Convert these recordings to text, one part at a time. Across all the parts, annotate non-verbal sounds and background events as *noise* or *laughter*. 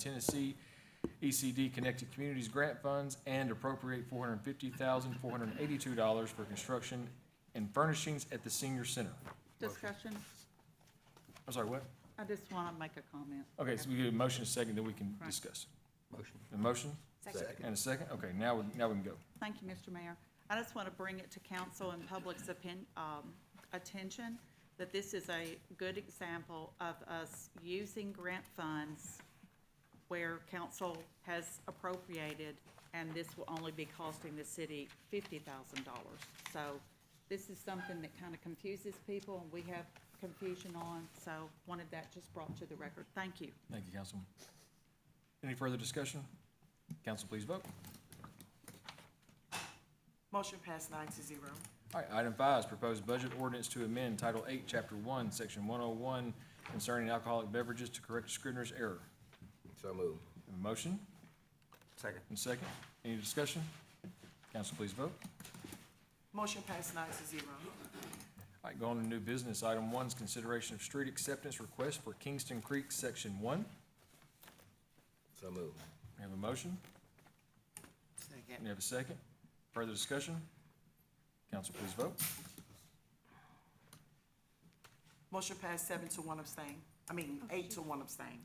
Tennessee ECD Connected Communities Grant Funds and appropriate four hundred fifty thousand, four hundred eighty-two dollars for construction and furnishings at the senior center. Discussion? I'm sorry, what? I just want to make a comment. Okay, so we get a motion, a second, then we can Right. discuss. Motion. A motion Second. and a second? Okay, now, we now we can go. Thank you, Mr. Mayor. I just want to bring it to council and public's opin- um, attention that this is a good example of us using grant funds where council has appropriated, and this will only be costing the city fifty thousand dollars. So this is something that kind of confuses people, and we have confusion on, so wanted that just brought to the record. Thank you. Thank you, Councilman. Any further discussion? Council, please vote. Motion passed nine to zero. All right, item five is proposed budget ordinance to amend Title Eight, Chapter One, Section one oh one concerning alcoholic beverages to correct Scrivener's error. So moved. Have a motion Second. and second. Any discussion? Council, please vote. Motion passed nine to zero. All right, going to new business. Item one is consideration of street acceptance request for Kingston Creek, Section One. So moved. We have a motion. We Second. have a second. Further discussion? Council, please vote. Motion passed seven to one abstain. I mean, eight to one abstain.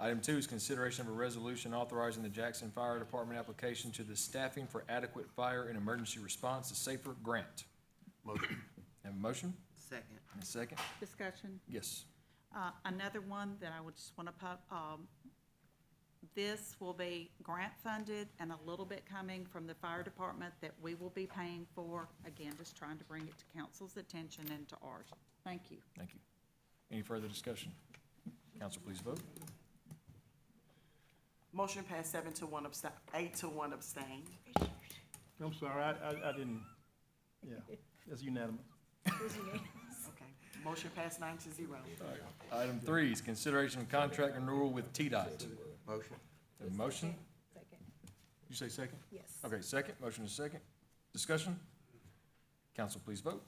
Item two is consideration of a resolution authorizing the Jackson Fire Department application to the Staffing for Adequate Fire and Emergency Response, a SAFER grant. Motion. Have a motion Second. and a second? Discussion? Yes. Uh, Another one that I would just want to put, um, this will be grant funded and a little bit coming from the fire department that we will be paying for. Again, just trying to bring it to council's attention and to ours. Thank you. Thank you. Any further discussion? Council, please vote. Motion passed seven to one abstain, eight to one abstain. I'm sorry, I, I, I didn't, yeah, it's unanimous. Okay. Motion passed nine to zero. Item three is consideration of contract renewal with TDOT. Motion. Have a motion? You say second? Yes. Okay, second, motion is second. Discussion? Council, please vote.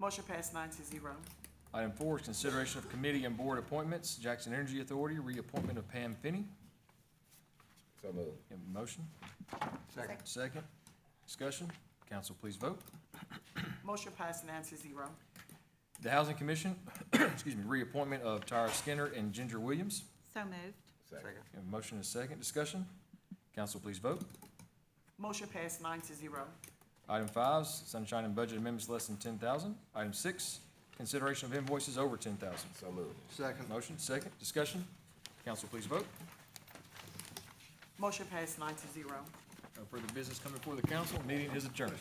Motion passed nine to zero. Item four is consideration of committee and board appointments, Jackson Energy Authority, reappointment of Pam Finney. So moved. Have a motion? Second. Second. Discussion? Council, please vote. Motion passed nine to zero. The Housing Commission, *coughs* excuse me, reappointment of Tyra Skinner and Ginger Williams. So moved. Second. We have a motion and a second. Discussion? Council, please vote. Motion passed nine to zero. Item five, is sunshine and budget amendments less than ten thousand. Item six, consideration of invoices over ten thousand. So moved. Second, Motion, second. Discussion? Council, please vote. Motion passed nine to zero. No further business coming before the council. Meeting is adjourned.